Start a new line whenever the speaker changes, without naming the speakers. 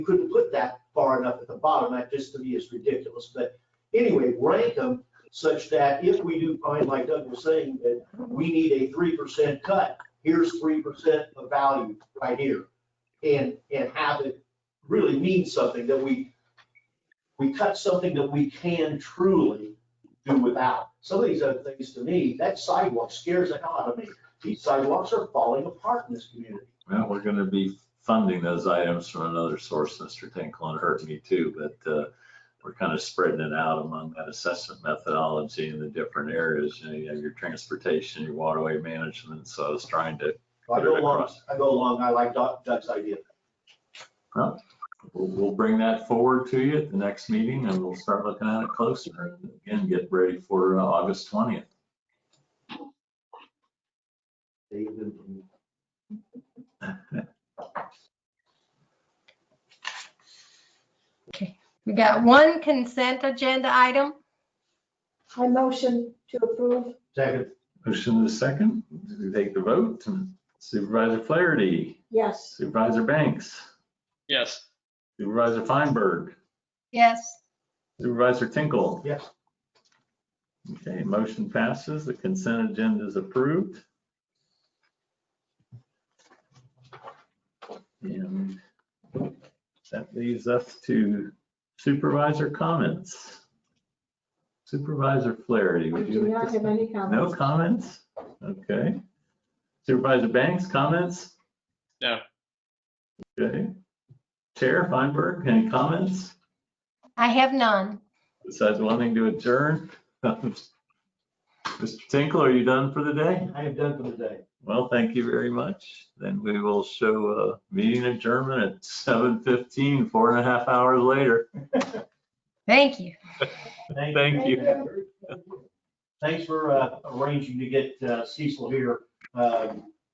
you couldn't put that far enough at the bottom, that just to me is ridiculous, but anyway, rank them such that if we do find, like Doug was saying, that we need a three percent cut, here's three percent of value right here. And, and have it really mean something that we, we cut something that we can truly do without. Some of these other things to me, that sidewalk scares the hell out of me. These sidewalks are falling apart in this community.
Well, we're gonna be funding those items from another source, Mr. Tinkle, and it hurt me too, but, uh, we're kind of spreading it out among that assessment methodology in the different areas. You know, you have your transportation, your waterway management, so I was trying to,
I go along, I go along, I like Doc- Doug's idea.
we'll, we'll bring that forward to you at the next meeting and we'll start looking at it closer and again, get ready for uh, August twentieth.
David,
We got one consent agenda item.
I motion to approve.
Second,
Motion to the second, we take the vote. Supervisor Flaherty,
Yes.
Supervisor Banks,
Yes,
Supervisor Feinberg,
Yes,
Supervisor Tinkle.
yes,
Okay, motion passes. The consent agenda is approved. And that leaves us to supervisor comments. Supervisor Flaherty,
I
would
do
you
not
like
have
to?
any
No
comments.
comments? Okay. Supervisor Banks, comments?
No.
Okay. Chair Feinberg, any comments?
I have none.
Besides wanting to adjourn? Mr. Tinkle, are you done for the day?
I am done for the day.
Well, thank you very much. Then we will show a meeting adjournment at 7:15, four and a half hours later.
Thank you.
Thank you.
Thanks for uh, arranging to get uh, Cecil here. Um,